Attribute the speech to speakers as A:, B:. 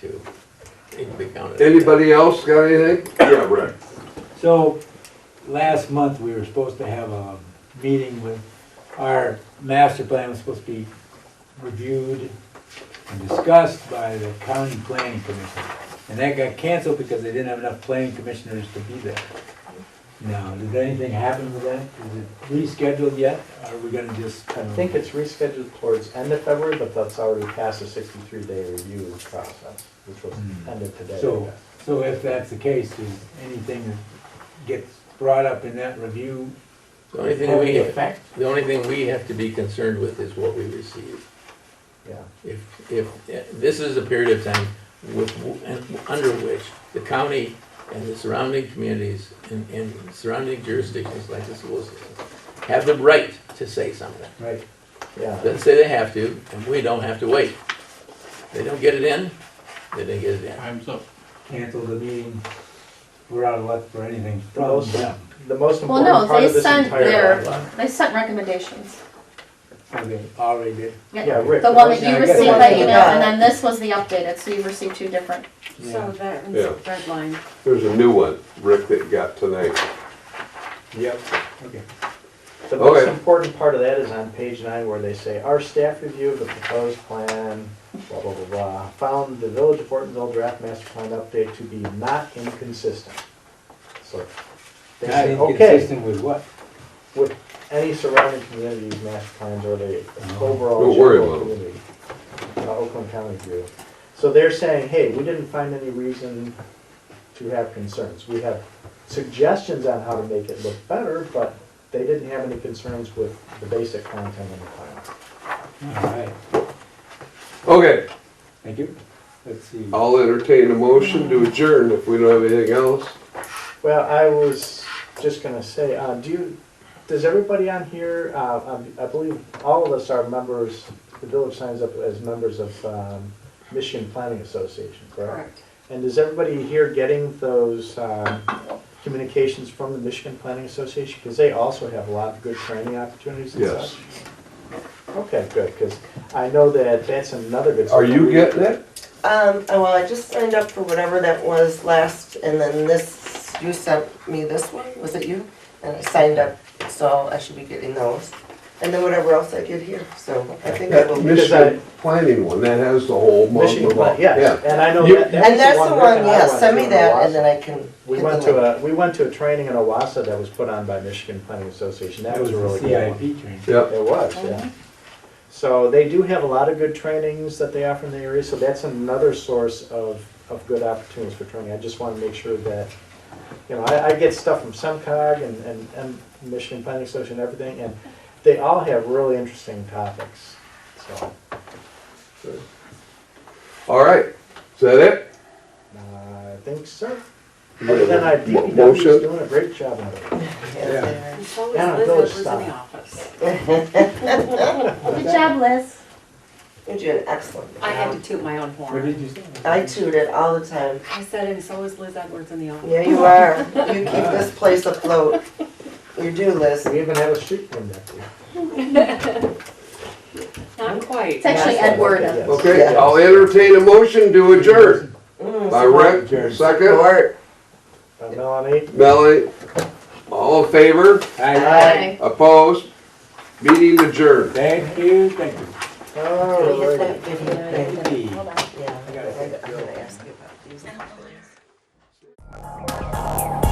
A: too. Need to be counted.
B: Anybody else got anything?
C: Yeah, right.
D: So, last month, we were supposed to have a meeting with, our master plan was supposed to be reviewed and discussed by the county planning commission. And that got canceled because they didn't have enough planning commissioners to be there. Now, did anything happen with that? Is it rescheduled yet? Or are we gonna just
E: I
D: kind of?
E: think it's rescheduled towards end of February, but that's already past the sixty-three day review process, which was
D: Hmm.
E: ended today. I
D: So-
E: guess.
D: So if that's the case, is anything that gets brought up in that review
A: The only thing
D: have
A: we,
D: any effect?
A: the only thing we have to be concerned with is what we receive.
E: Yeah,
A: If, if, this is a period of time with, and under which the county and the surrounding communities and, and surrounding jurisdictions like the school system have the right to say something.
D: Right.
E: yeah,
A: Doesn't say they have to, and we don't have to wait. They don't get it in, they didn't get it in.
F: Time's up.
D: cancel the meeting, we're out of luck for anything from
E: Those-
D: them.
E: the most
G: Well,
E: important
G: no,
E: part of
G: they
E: this
G: sent
E: entire.
G: their, they sent recommendations.
D: So they already did.
E: Yeah, Rick.
G: The one that
D: Yeah, I
G: you
D: got
G: received
D: that.
G: by email, and then this was the updated, so you received two different.
D: Yeah.
H: So that
B: Yeah.
H: one's red line.
B: There's a new one, Rick, that got tonight.
E: Yep.
D: Okay.
E: The most
B: Okay.
E: important part of that is on page nine where they say, our staff review of the proposed plan, blah, blah, blah, blah, found the Village of Ortonville draft master plan update to be not inconsistent. So they
D: Not
E: say, okay,
D: inconsistent with what?
E: with any surrounding communities, master plans, or the overall.
B: Don't worry
E: general
B: about it.
E: community, uh, Oakland County view. So they're saying, hey, we didn't find any reason to have concerns. We have suggestions on how to make it look better, but they didn't have any concerns with the basic content in the plan.
D: All right,
B: Okay,
D: thank you. Let's see.
E: Oh,
B: I'll entertain a motion to adjourn if we don't have anything else.
E: Well, I was just gonna say, uh, do you, does everybody on here, uh, um, I believe all of us are members, the village signs up as members of, um, Michigan Planning Association, correct?
H: Correct.
E: And is everybody here getting those, um, communications from the Michigan Planning Association? Because they also have a lot of good training opportunities and
B: Yes.
E: such. Okay, good, because I know that that's another good.
B: Are you getting it?
I: Um, oh, well, I just signed up for whatever that was last, and then this, you sent me this one, was it you? And I signed up, so I should be getting those. And then whatever else I get here, so I think I
B: That
I: will.
E: Because I-
B: Michigan planning one, that has the whole month
E: Michigan,
B: of.
E: Plan- yes, and I know
B: You-
E: that. that was
I: And that's the
E: Rick
I: one,
E: and I
I: yeah,
E: went
I: send
E: to
I: me
E: in
I: that,
E: Owasso.
I: and then I can.
E: We
I: get the
E: went to
I: link.
E: a, we went to a training in Owassa that was put on by Michigan Planning Association, that was a
D: the
E: really good one.
D: CIP training.
B: Yep,
E: It was, yeah. So they do have a lot of good trainings that they offer in the area, so that's another source of, of good opportunities for training. I just wanna make sure that, you know, I, I get stuff from SEMCOG and, and, and Michigan Planning Association and everything, and they all have really interesting topics, so.
B: all right, is that it?
E: uh, I think so. Other than I,
B: Mo-
E: DPW is
B: motion?
E: doing a great job on it.
I: Yeah.
H: And so is
E: Yeah,
H: Liz
E: those
H: Edwards in
E: stop.
H: the office.
G: Good job, Liz.
I: You're doing excellent.
H: I had to toot my own
D: What
H: horn.
D: did you say?
I: I toot it all the time.
H: I said, and so is Liz Edwards in the office.
I: Yeah, you are. You keep this place afloat. You do, Liz.
E: We even have a street named after you.
H: Not quite.
G: It's actually
E: Yes,
G: Edward.
E: okay, yes.
B: Okay,
I: Yeah.
B: I'll entertain a motion to adjourn
I: Mm,
B: by Rick,
D: Adjourn.
B: second,
I: Lord.
E: Uh, Melanie?
B: Melanie. All in favor?
D: All right,
G: Bye.
B: Opposed? Meeting adjourned.
D: thank you, thank you.
I: Can
E: Oh,
I: we hit
E: right.
I: that video thing?
D: Hey.
G: Hold on.
I: Yeah,
D: I gotta
I: I
D: hit
I: got- I'm gonna ask you about these.